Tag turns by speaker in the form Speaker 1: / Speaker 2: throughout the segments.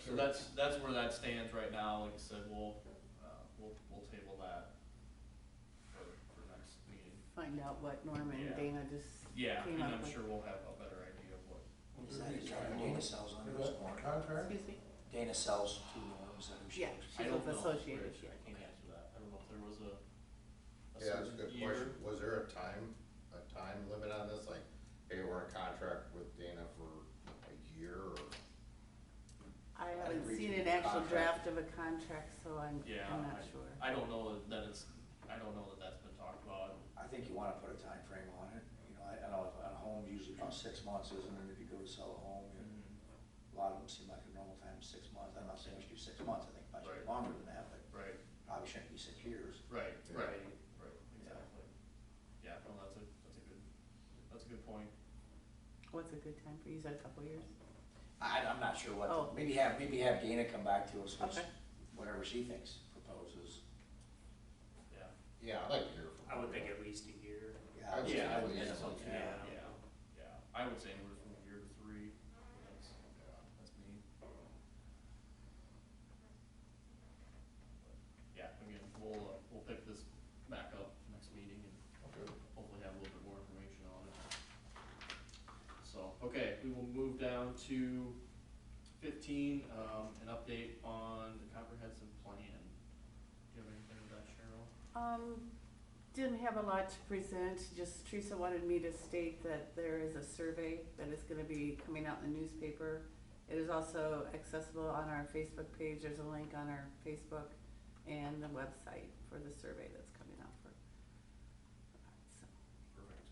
Speaker 1: So that's, that's where that stands right now, like I said, we'll, uh, we'll, we'll table that for, for next meeting.
Speaker 2: find out what Norman
Speaker 1: Yeah.
Speaker 2: and Dana just
Speaker 1: Yeah,
Speaker 2: came
Speaker 1: and I'm
Speaker 2: up with.
Speaker 1: sure we'll have a better idea of what,
Speaker 3: Is
Speaker 4: Is
Speaker 3: that
Speaker 4: that
Speaker 3: his car? Dana sells under his warranty.
Speaker 4: Contract?
Speaker 2: Excuse me?
Speaker 3: Dana sells two norms that are
Speaker 2: Yeah,
Speaker 3: shipped.
Speaker 1: I
Speaker 2: she's
Speaker 1: don't
Speaker 2: with
Speaker 1: know,
Speaker 2: Associated,
Speaker 1: Rich,
Speaker 2: yeah.
Speaker 1: I can't answer that, I don't know if there was a, a
Speaker 5: Yeah, that's a
Speaker 1: certain
Speaker 5: good
Speaker 1: year.
Speaker 5: question. Was there a time, a time limit on this? Like, hey, we're in contract with Dana for a year or?
Speaker 2: I
Speaker 3: I
Speaker 2: haven't
Speaker 3: read
Speaker 2: seen
Speaker 3: the
Speaker 2: an actual
Speaker 3: contract.
Speaker 2: draft of a contract, so I'm,
Speaker 1: Yeah,
Speaker 2: I'm not sure.
Speaker 1: I don't know that- that it's, I don't know that that's been talked about,
Speaker 3: I think you wanna put a time frame on it, you know, I, I know a home usually about six months, isn't it, if you go to sell a home, you a
Speaker 2: Mm-hmm.
Speaker 3: lot of them seem like a normal time, is six months, I'm not saying we should do six months, I think it might
Speaker 1: Right.
Speaker 3: be longer than that, but
Speaker 1: right,
Speaker 3: probably shouldn't be six years.
Speaker 1: right,
Speaker 5: Yeah.
Speaker 1: right, right, exactly. Yeah, no, that's a, that's a good, that's a good point.
Speaker 2: What's a good time for you? You said a couple years?
Speaker 3: I, I'm not sure what,
Speaker 2: Oh.
Speaker 3: maybe have, maybe have Dana come back to us with
Speaker 2: Okay.
Speaker 3: whatever she thinks proposes.
Speaker 1: Yeah.
Speaker 5: Yeah, I'd like to hear from.
Speaker 4: I would think
Speaker 5: it.
Speaker 4: at least a year.
Speaker 5: I would
Speaker 3: think
Speaker 1: Yeah, I
Speaker 3: at
Speaker 1: would
Speaker 3: least
Speaker 1: think so,
Speaker 3: one,
Speaker 1: too.
Speaker 4: Yeah.
Speaker 1: Yeah, yeah, I would say anywhere from a year to three, that's, that's me. Yeah, again, we'll, uh, we'll pick this back up next meeting and
Speaker 5: Okay.
Speaker 1: hopefully have a little bit more information on it. So, okay, we will move down to fifteen, um, an update on the comprehensive plan. Do you have anything with that, Cheryl?
Speaker 2: Um, didn't have a lot to present, just Teresa wanted me to state that there is a survey that is gonna be coming out in the newspaper. It is also accessible on our Facebook page, there's a link on our Facebook and the website for the survey that's coming out for. so.
Speaker 1: Perfect.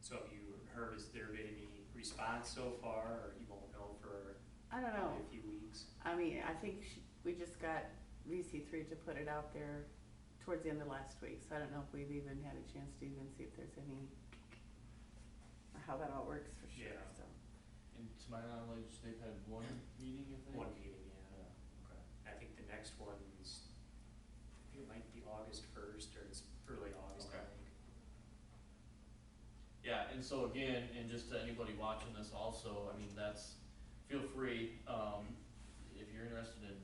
Speaker 4: So have you heard, has there been any response so far, or you won't know for
Speaker 2: I don't know,
Speaker 4: probably a few weeks?
Speaker 2: I mean, I think she, we just got VC three to put it out there towards the end of last week, so I don't know if we've even had a chance to even see if there's any, or how that all works for sure,
Speaker 4: Yeah.
Speaker 2: so.
Speaker 1: And to my knowledge, they've had one meeting, I think?
Speaker 4: One meeting, yeah.
Speaker 1: Okay.
Speaker 4: I think the next one's, I think it might be August first, or it's early August, I
Speaker 1: Okay.
Speaker 4: think.
Speaker 1: Yeah, and so again, and just to anybody watching this also, I mean, that's, feel free, um, if you're interested in,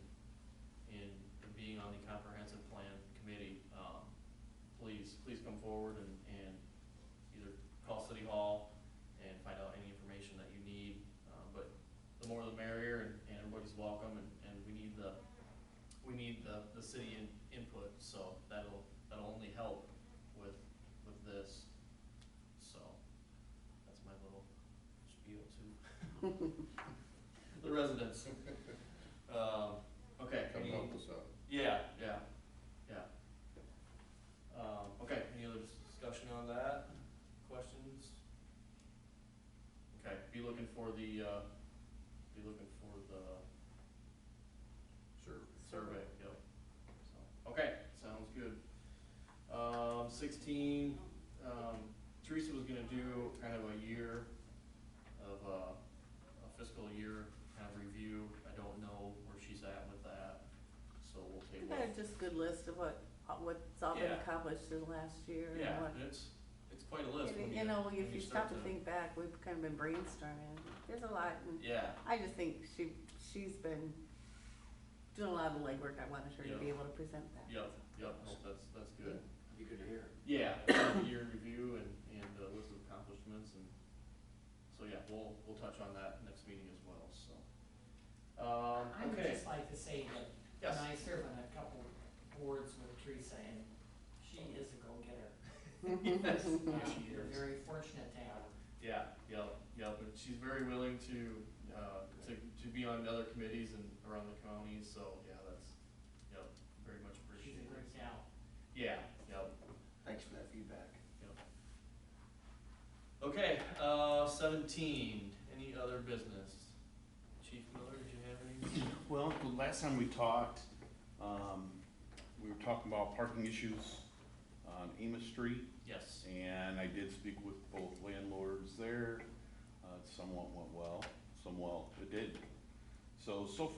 Speaker 1: in being on the comprehensive plan committee, um, please, please come forward and, and either call City Hall and find out any information that you need, uh, but the more the merrier, and, and everybody's welcome, and, and we need the, we need the, the city in, input, so that'll, that'll only help with, with this, so, that's my little spiel to the residents. Um, okay,
Speaker 5: Come
Speaker 1: any-
Speaker 5: help us out.
Speaker 1: yeah, yeah, yeah. Um, okay, any other dis- discussion on that? Questions? Okay, be looking for the, uh, be looking for the
Speaker 5: Sure.
Speaker 1: survey, yep. So, Okay, sounds good. Um, sixteen, um, Teresa was gonna do kind of a year of, uh, a fiscal year kind of review. I don't know where she's at with that, so we'll
Speaker 2: I
Speaker 1: table.
Speaker 2: think I have just a good list of what, uh, what's all been
Speaker 1: Yeah.
Speaker 2: accomplished in the last year
Speaker 1: Yeah,
Speaker 2: and what.
Speaker 1: it's, it's quite a list. when
Speaker 2: And, You know,
Speaker 1: when
Speaker 2: if you
Speaker 1: start
Speaker 2: stop to think back, we've kind of been brainstorming, there's a lot, and
Speaker 1: Yeah,
Speaker 2: I just think she, she's been doing a lot of the legwork, I wanted her to be
Speaker 1: Yeah.
Speaker 2: able to present that.
Speaker 1: yep, yep, no,
Speaker 2: Oh.
Speaker 1: that's, that's good.
Speaker 3: You could hear.
Speaker 1: Yeah, um, year in review and, and a list of accomplishments and, so yeah, we'll, we'll touch on that next meeting as well, so. Um,
Speaker 6: I would
Speaker 1: okay,
Speaker 6: just like to say that
Speaker 1: yes,
Speaker 6: when I serve on a couple boards with Teresa and she is a go-getter.
Speaker 1: yes,
Speaker 6: Um,
Speaker 1: yes, she
Speaker 6: We're
Speaker 1: is.
Speaker 6: very fortunate to have her.
Speaker 1: Yeah, yep, yep, and she's very willing to, uh, to, to be on the other committees and around the county, so yeah, that's, yep, very much
Speaker 6: She's a
Speaker 1: appreciated.
Speaker 6: great gal.
Speaker 1: Yeah, yep.
Speaker 3: Thanks for that feedback.
Speaker 1: Okay, uh, seventeen, any other business? Chief Miller, did you have any?
Speaker 7: Well, the last time we talked, um, we were talking about parking issues on Amos Street,
Speaker 1: Yes,
Speaker 7: and I did speak with both landlords there. Uh, somewhat went well, somewhat it did. So, so far